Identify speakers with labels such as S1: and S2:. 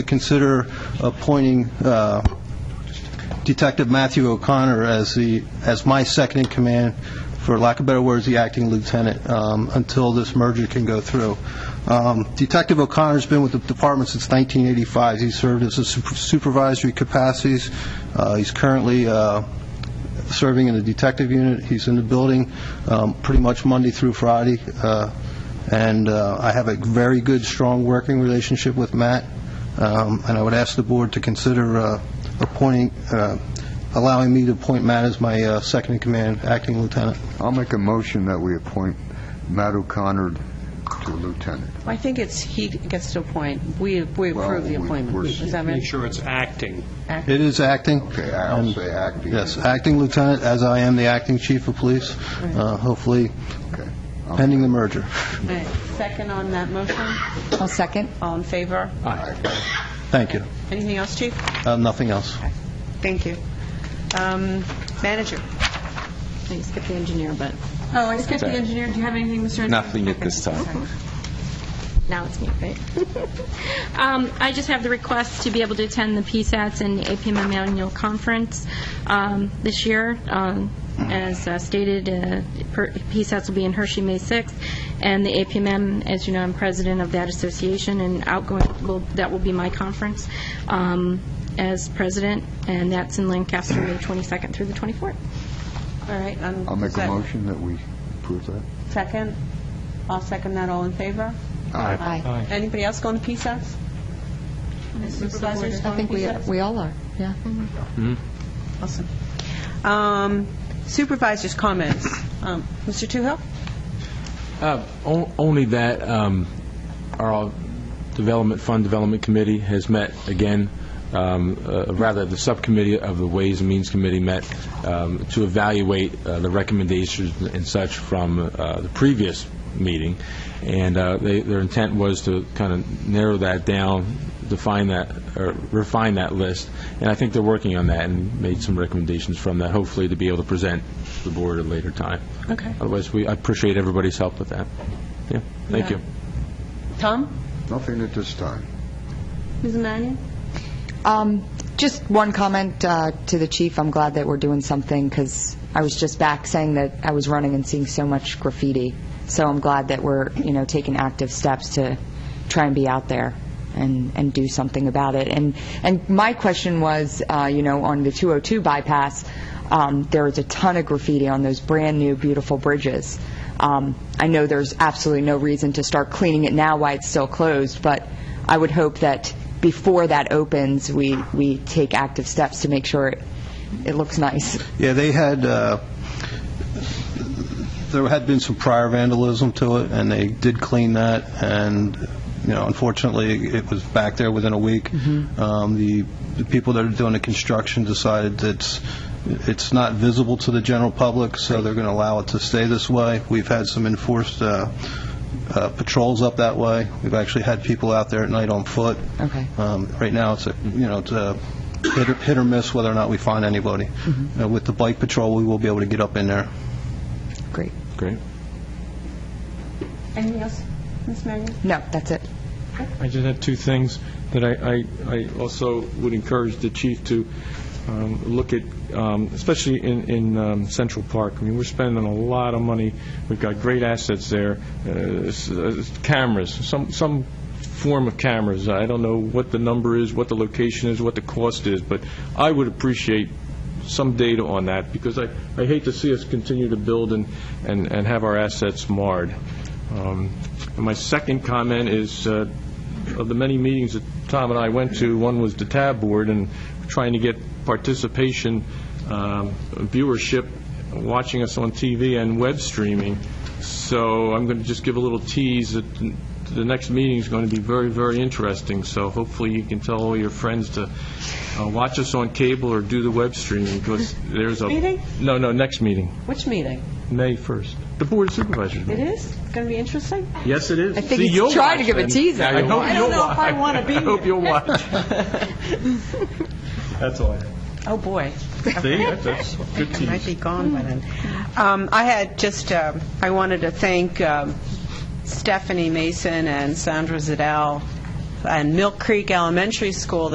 S1: consider appointing uh, Detective Matthew O'Connor as the, as my second in command, for lack of better words, the acting lieutenant, um, until this merger can go through. Um, Detective O'Connor's been with the department since 1985. He served as a super- supervisory capacities. Uh, He's currently uh, serving in the detective unit. He's in the building um, pretty much Monday through Friday, uh, and uh, I have a very good, strong working relationship with Matt, Um, and I would ask the board to consider uh, appointing, uh, allowing me to appoint Matt as my uh, second-in-command acting lieutenant.
S2: I'll make a motion that we appoint Matt O'Connor to lieutenant.
S3: I think it's, he gets to appoint, we we approve the
S2: Well, we-
S3: appointment.
S2: we're-
S3: Does that
S2: Make
S3: mean?
S4: Make sure it's acting.
S1: It is acting.
S2: Okay, I'll say acting.
S1: Yes, acting lieutenant, as I am the acting chief of police, uh, hopefully
S2: Okay.
S1: pending the merger.
S3: Right. Second on that motion?
S5: I'll second.
S3: All in favor?
S1: Thank you.
S3: Anything else, chief?
S1: Uh, Nothing else.
S3: Thank you. Um, Manager?
S5: You skipped the engineer, but
S3: Oh, I skipped the engineer. Do you have anything, Mr.?
S6: Nothing at this time.
S5: now it's me, right?
S7: Um, I just have the request to be able to attend the PSATs and APM Annual Conference um, this year. Um, As uh, stated, uh, per- PSATs will be in Hershey May 6th, and the APMM, as you know, I'm president of that association, and outgoing, will- that will be my conference um, as president, and that's in Lancaster, May 22nd through the 24th.
S3: All right. um,
S2: I'll make
S3: is
S2: a
S3: that
S2: motion that we approve that.
S3: Second? I'll second that. All in favor?
S5: Aye.
S3: Anybody else going to PSAS? Supervisors
S5: I
S3: going
S5: think
S3: to
S5: we
S3: PSAS?
S5: we all are, yeah.
S3: Awesome. Um, Supervisors' comments. Um, Mr. Toohill?
S8: Uh, on- Only that um, our Development, Fund Development Committee has met again, um, uh, rather, the subcommittee of the Ways and Means Committee met um, to evaluate uh, the recommendations and such from uh, the previous meeting, and uh, they- their intent was to kind of narrow that down, define that, or refine that list, and I think they're working on that and made some recommendations from that, hopefully to be able to present to the board at a later time.
S3: Okay.
S8: Otherwise, we, I appreciate everybody's help with that. Yeah, thank you.
S3: Tom?
S2: Nothing at this time.
S3: Ms. Mannion?
S5: Um, Just one comment uh, to the chief. I'm glad that we're doing something because I was just back saying that I was running and seeing so much graffiti. So I'm glad that we're, you know, taking active steps to try and be out there and, and do something about it. And, and my question was, uh, you know, on the 202 bypass, um, there is a ton of graffiti on those brand-new, beautiful bridges. Um, I know there's absolutely no reason to start cleaning it now while it's still closed, but I would hope that before that opens, we, we take active steps to make sure it, it looks nice.
S1: Yeah, they had, uh, there had been some prior vandalism to it, and they did clean that, and, you know, unfortunately, it was back there within a week. Um, The the people that are doing the construction decided that's, it's not visible to the general public, so they're going to allow it to stay this way. We've had some enforced uh, uh, patrols up that way. We've actually had people out there at night on foot.
S5: Okay.
S1: Um, Right now, it's, a you know, it's a hit or- hit or miss whether or not we find anybody. Uh, With the bike patrol, we will be able to get up in there.
S5: Great.
S8: Great.
S3: Anything else? Ms. Mannion?
S5: No, that's it.
S4: I just have two things that I, I I also would encourage the chief to um, look at, um, especially in, in um, Central Park. I mean, we're spending a lot of money, we've got great assets there, Uh, s- uh, cameras, some, some form of cameras. I don't know what the number is, what the location is, what the cost is, but I would appreciate some data on that, because I, I hate to see us continue to build and, and, and have our assets marred. Um, And my second comment is, uh, of the many meetings that Tom and I went to, one was the TAB board, and trying to get participation, um, viewership, watching us on TV and web streaming. So I'm going to just give a little tease that the next meeting is going to be very, very interesting, so hopefully you can tell all your friends to uh, watch us on cable or do the web streaming, because there's a...
S3: Meeting?
S4: No, no, next meeting,
S3: Which meeting?
S4: May 1st. The Board of Supervisors
S3: It
S4: meeting.
S3: is? It's going to be interesting?
S4: Yes, it is. I
S5: think he's trying to give a teaser. I
S3: don't know if I wanna be
S4: I hope
S3: here.
S4: you'll watch. That's all I have.
S3: Oh, boy.
S4: See, that's- that's a good
S3: I might be
S4: tease.
S3: gone by then. Um, I had just, um, I wanted to thank um, Stephanie Mason and Sandra Zidell and Milk Creek Elementary School